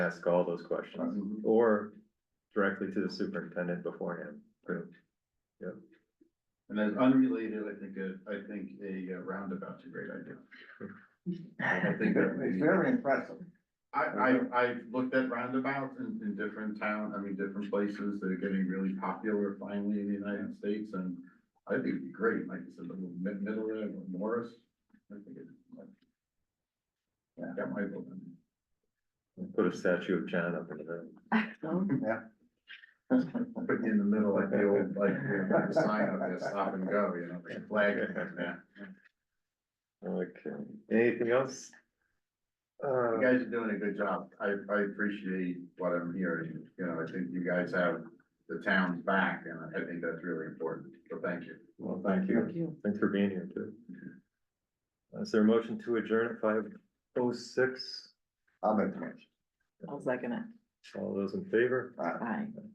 ask all those questions Mhm. or directly to the superintendent beforehand. too. And then unrelated, I think, a- I think a uh, roundabout's a great idea. I think that It's very impressive. I, I, I've looked at roundabouts in, in different town, I mean, different places that are getting really popular finally in the United States and I think it'd be great, like you said, the little mid, middle there, or Morris. I think it, like. Yeah, that might be. Put a statue of John up in the, Put you in the middle, like the old, like, you know, the sign up there, stop and go, you know, the flag, yeah. okay, anything else? You Uh, guys are doing a good job. I, I appreciate what I'm hearing. You know, I think you guys have the town's back and I think that's really important. So thank you. well, thank you. you. Thanks for being here too. Uh, Is there a motion to adjourn at five oh six? I'll make the motion. I'll second it. All those in favor? All right. Bye.